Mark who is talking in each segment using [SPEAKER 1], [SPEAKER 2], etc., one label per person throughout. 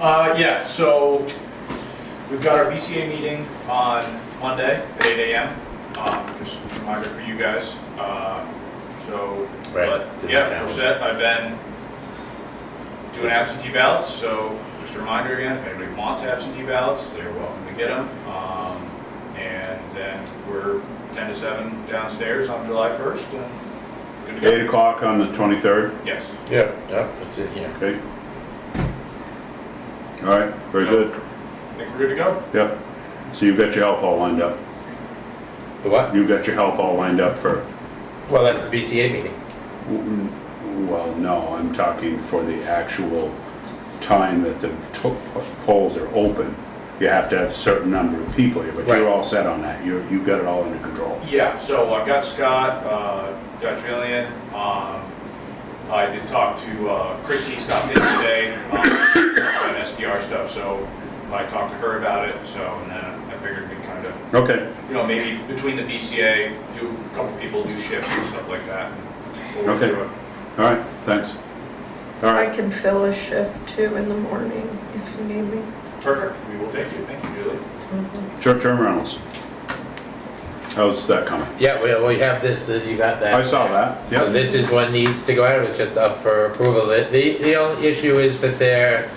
[SPEAKER 1] Uh, yeah, so we've got our BCA meeting on Monday at eight AM. Um, just a reminder for you guys, uh, so,
[SPEAKER 2] Right,
[SPEAKER 1] but,
[SPEAKER 2] it's in the
[SPEAKER 1] yeah, we're
[SPEAKER 2] calendar.
[SPEAKER 1] set. I've been doing absentee ballots, so just a reminder again, if anybody wants absentee ballots, they're welcome to get them. Um, and then we're ten to seven downstairs on July first and good
[SPEAKER 3] Eight
[SPEAKER 1] to go.
[SPEAKER 3] o'clock on the 23rd,
[SPEAKER 1] Yes.
[SPEAKER 2] Yeah, yeah, that's it, yeah.
[SPEAKER 3] okay? All right, very good,
[SPEAKER 1] I think we're good to go.
[SPEAKER 3] yep. So you've got your help all lined up.
[SPEAKER 2] The what?
[SPEAKER 3] You've got your help all lined up for,
[SPEAKER 2] Well, that's the BCA meeting.
[SPEAKER 3] well, no, I'm talking for the actual time that the to- polls are open. You have to have a certain number of people here, but you're
[SPEAKER 2] Right.
[SPEAKER 3] all set on that. You're, you've got it all under control.
[SPEAKER 1] Yeah, so I've got Scott, uh, got Jillian, um, I did talk to, uh, Christie stopped in today, um, on SDR stuff, so I talked to her about it, so, and then I figured we kind of,
[SPEAKER 3] Okay,
[SPEAKER 1] you know, maybe between the BCA, do, a couple people do shifts and stuff like that. and we'll
[SPEAKER 3] Okay.
[SPEAKER 1] do it.
[SPEAKER 3] all right, thanks. All
[SPEAKER 4] I
[SPEAKER 3] right,
[SPEAKER 4] can fill a shift too in the morning if you need me.
[SPEAKER 1] Perfect, we will take you, thank you, Julie.
[SPEAKER 3] short-term rentals. How's that coming?
[SPEAKER 2] Yeah, well, we have this, uh, you got that.
[SPEAKER 3] I saw that,
[SPEAKER 2] So
[SPEAKER 3] yep.
[SPEAKER 2] this is what needs to go out, it's just up for approval. The, the the only issue is that they're,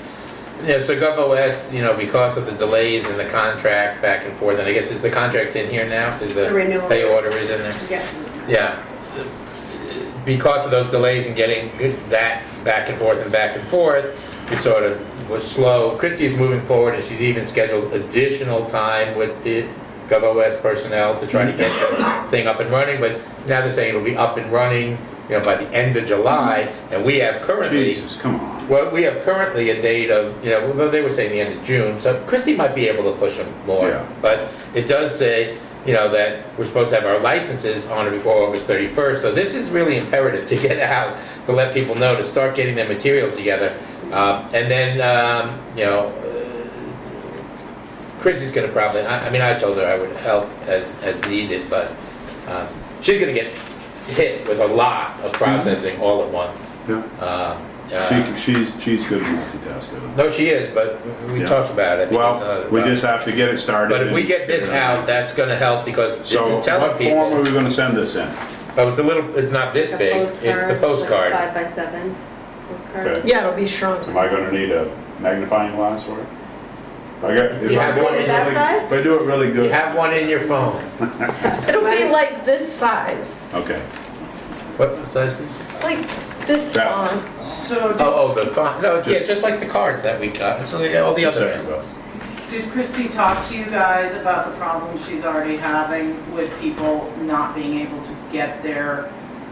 [SPEAKER 2] you know, so GovOS, you know, because of the delays in the contract back and forth, and I guess is the contract in here now? Is the
[SPEAKER 5] The renewal
[SPEAKER 2] pay
[SPEAKER 5] is-
[SPEAKER 2] order is in there?
[SPEAKER 5] Yeah,
[SPEAKER 2] Yeah. Because of those delays in getting good- that back and forth and back and forth, we sort of was slow. Christie's moving forward and she's even scheduled additional time with the GovOS personnel to try to get the thing up and running. But now they're saying it'll be up and running, you know, by the end of July. And we have currently
[SPEAKER 3] Jesus, come on.
[SPEAKER 2] well, we have currently a date of, you know, though they were saying the end of June, so Christie might be able to push them
[SPEAKER 3] Yeah.
[SPEAKER 2] more. But it does say, you know, that we're supposed to have our licenses on or before August thirty-first, so this is really imperative to get out, to let people know, to start getting their material together. Um, and then, um, you know, uh, Christie's gonna probably, I, I mean, I told her I would help as, as needed, but, um, she's gonna get hit with a lot of processing all at once.
[SPEAKER 3] Yeah.
[SPEAKER 2] Um, uh,
[SPEAKER 3] Mm-hmm. She, she's, she's good at multitasking.
[SPEAKER 2] no, she is, but we
[SPEAKER 3] Yeah.
[SPEAKER 2] talked about it. because,
[SPEAKER 3] Well,
[SPEAKER 2] uh,
[SPEAKER 3] we just have to get it started.
[SPEAKER 2] But if we
[SPEAKER 3] and
[SPEAKER 2] get this
[SPEAKER 3] figure it
[SPEAKER 2] out, that's gonna help because this
[SPEAKER 3] So
[SPEAKER 2] is telling
[SPEAKER 3] what form are
[SPEAKER 2] people.
[SPEAKER 3] we gonna send this in?
[SPEAKER 2] Oh, it's a little, it's not this
[SPEAKER 5] the
[SPEAKER 2] big, it's the
[SPEAKER 5] like
[SPEAKER 2] postcard.
[SPEAKER 5] Five by seven postcard.
[SPEAKER 3] Okay.
[SPEAKER 4] Yeah, it'll be shrunk.
[SPEAKER 3] Am I gonna need a magnifying glass for it? If I get- if
[SPEAKER 2] You
[SPEAKER 3] I
[SPEAKER 2] have
[SPEAKER 3] do
[SPEAKER 2] one
[SPEAKER 3] it
[SPEAKER 2] in that
[SPEAKER 3] really-
[SPEAKER 5] size?
[SPEAKER 3] If I do it really
[SPEAKER 2] You
[SPEAKER 3] good,
[SPEAKER 2] have one in your phone.
[SPEAKER 4] It'll be like this size,
[SPEAKER 3] okay.
[SPEAKER 2] What size is it?
[SPEAKER 4] like this
[SPEAKER 3] That.
[SPEAKER 4] long.
[SPEAKER 6] So
[SPEAKER 2] Oh, oh, the font, no, yeah,
[SPEAKER 3] Just-
[SPEAKER 2] just like the cards that we got, so they got all the
[SPEAKER 3] Just
[SPEAKER 2] other
[SPEAKER 3] saying,
[SPEAKER 2] angles.
[SPEAKER 6] did- did Christie talk to you guys about the problems she's already having with people not being able to get their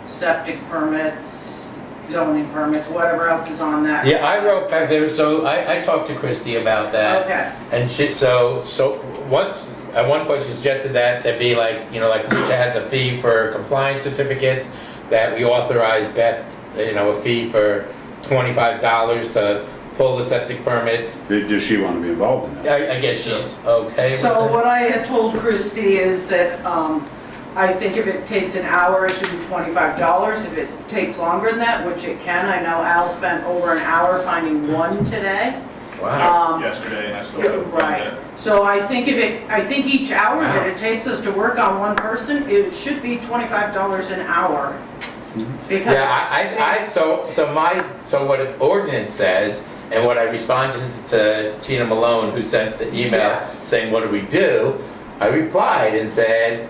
[SPEAKER 6] septic permits, zoning permits, whatever else is on that?
[SPEAKER 2] Yeah, I wrote back there, so I, I talked to Christie about that.
[SPEAKER 6] Okay,
[SPEAKER 2] And she, so, so, once, at one point she suggested that, that be like, you know, like Lucia has a fee for compliance certificates, that we authorize Beth, you know, a fee for twenty-five dollars to pull the septic permits.
[SPEAKER 3] Did- Does she wanna be involved in that?
[SPEAKER 2] I, I guess she's okay with
[SPEAKER 6] so
[SPEAKER 2] that.
[SPEAKER 6] what I had told Christie is that, um, I think if it takes an hour, it should be twenty-five dollars. If it takes longer than that, which it can, I know Al spent over an hour finding one today.
[SPEAKER 2] Wow,
[SPEAKER 6] Um,
[SPEAKER 1] Yesterday, and I still haven't found
[SPEAKER 6] Right,
[SPEAKER 1] it.
[SPEAKER 6] so I think if it, I think each hour that it takes us to work on one person, it should be twenty-five dollars an hour. Because.
[SPEAKER 2] yeah, I, I, I,
[SPEAKER 6] it's-
[SPEAKER 2] so, so my, so what an ordinance says, and what I responded to Tina Malone, who sent the email
[SPEAKER 6] Yes.
[SPEAKER 2] saying, what do we do? I replied and said,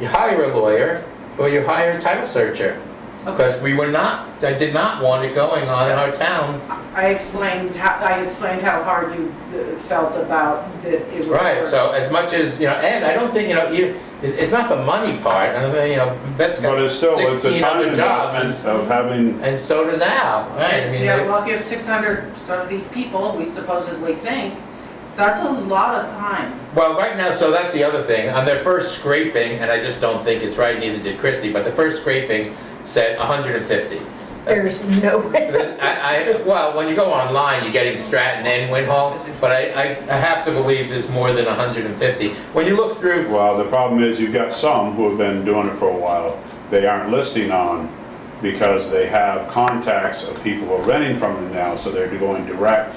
[SPEAKER 2] you hire a lawyer, or you hire a title searcher.
[SPEAKER 6] Okay,
[SPEAKER 2] Because we were not, I did not want it going on in our town.
[SPEAKER 6] I explained how, I explained how hard you uh, felt about that it was.
[SPEAKER 2] Right, so as much as, you know, and I don't think, you know, you, it's, it's not the money part, I don't think, you know, Beth's
[SPEAKER 3] But
[SPEAKER 2] got
[SPEAKER 3] it's still, it's the
[SPEAKER 2] sixteen
[SPEAKER 3] time
[SPEAKER 2] other jobs.
[SPEAKER 3] investment of having,
[SPEAKER 2] And and so does Al, right, I mean,
[SPEAKER 6] Yeah,
[SPEAKER 2] they-
[SPEAKER 6] well, if you have six hundred of these people, we supposedly think, that's a lot of time.
[SPEAKER 2] well, right now, so that's the other thing, on their first scraping, and I just don't think it's right, neither did Christie, but the first scraping said hundred and fifty.
[SPEAKER 4] There's no way.
[SPEAKER 2] I, I, well, when you go online, you're getting Stratton and Winhall, but I, I, I have to believe there's more than hundred and fifty. When you look through,
[SPEAKER 3] well, the problem is you've got some who have been doing it for a while. They aren't listing on because they have contacts of people who are renting from them now, so they're going direct